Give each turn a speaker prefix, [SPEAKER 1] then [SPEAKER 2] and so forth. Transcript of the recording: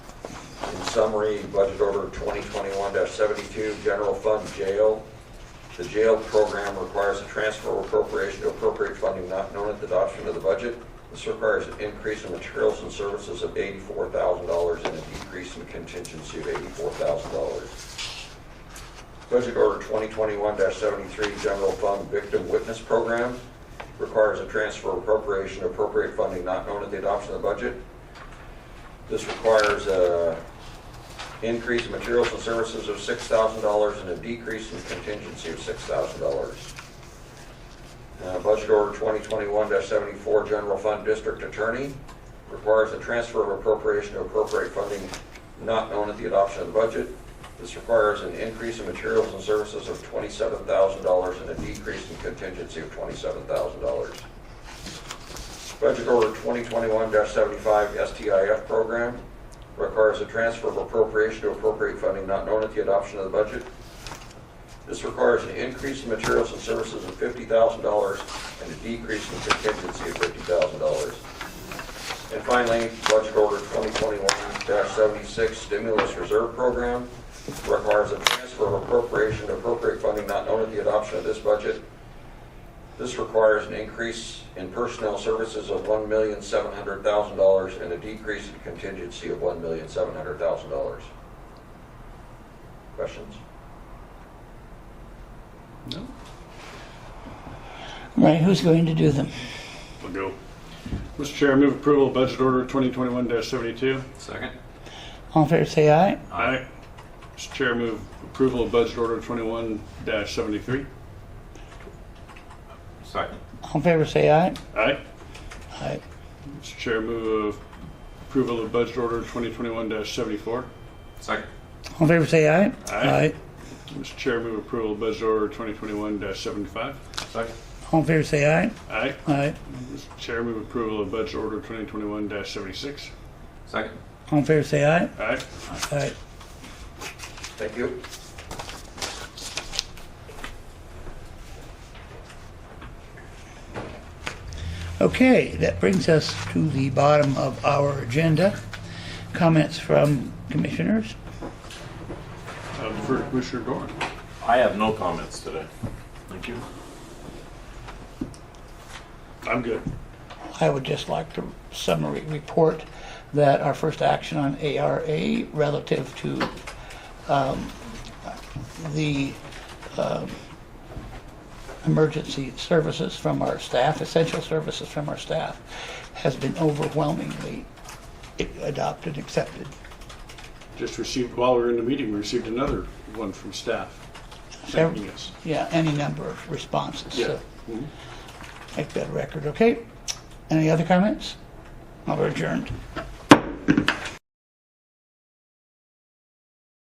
[SPEAKER 1] summary, budget order 2021-72, general fund jail. The jail program requires a transfer or appropriation to appropriate funding not known at the adoption of the budget. This requires an increase in materials and services of $84,000 and a decrease in contingency of $84,000. Budget order 2021-73, general fund victim witness program requires a transfer or appropriation to appropriate funding not known at the adoption of the budget. This requires uh, a increase in materials and services of six thousand dollars and a decrease in contingency of six thousand dollars. Uh, Budget order twenty twenty-one seventy-four, general fund district attorney, requires a transfer of appropriation to appropriate funding not known at the adoption of the budget. This requires an increase in materials and services of twenty-seven thousand dollars and a decrease in contingency of twenty-seven thousand dollars. Budget Order 2021-75 STIF program requires a transfer of appropriation to appropriate funding not known at the adoption of the budget. This requires an increase in materials and services of $50,000 and a decrease in contingency of $50,000. And finally, Budget Order 2021-76 Stimulus Reserve Program requires a transfer of appropriation to appropriate funding not known at the adoption of this budget. This requires an increase in personnel services of one million seven hundred thousand dollars and a decrease in contingency of one million seven hundred thousand dollars. Questions?
[SPEAKER 2] All right, who's going to do them?
[SPEAKER 3] I'll go. Mr. Chair, I move approval of budget order 2021-72.
[SPEAKER 4] Second?
[SPEAKER 2] All in favor, say aye.
[SPEAKER 3] Aye. Mr. Chair, I move approval of budget order 21-73.
[SPEAKER 4] Second.
[SPEAKER 2] All in favor, say aye.
[SPEAKER 3] Aye.
[SPEAKER 2] Aye.
[SPEAKER 3] Mr. Chair, I move approval of budget order 2021-74.
[SPEAKER 4] Second.
[SPEAKER 2] All in favor, say aye.
[SPEAKER 3] Aye. Mr. Chair, I move approval of budget order 2021-75.
[SPEAKER 4] Second.
[SPEAKER 2] All in favor, say aye.
[SPEAKER 3] Aye.
[SPEAKER 2] Aye.
[SPEAKER 3] Mr. Chair, I move approval of budget order 2021-76.
[SPEAKER 4] Second.
[SPEAKER 2] All in favor, say aye.
[SPEAKER 3] Aye.
[SPEAKER 2] Aye.
[SPEAKER 1] Thank you.
[SPEAKER 2] Okay, that brings us to the bottom of our agenda. Comments from commissioners?
[SPEAKER 3] I'll defer to Uh, Commissioner Doran.
[SPEAKER 5] I have no comments today. Thank you.
[SPEAKER 3] I'm good.
[SPEAKER 2] I would just like to summary report that our first action on ARA relative to um, the um, emergency services from our staff, essential services from our staff, has been overwhelmingly adopted, accepted.
[SPEAKER 3] Just received, while we were in the meeting, we received another one from staff thanking us.
[SPEAKER 2] Yeah, any number of responses.
[SPEAKER 3] Yeah.
[SPEAKER 2] So make that a record, okay? Any other comments? Well, we're adjourned.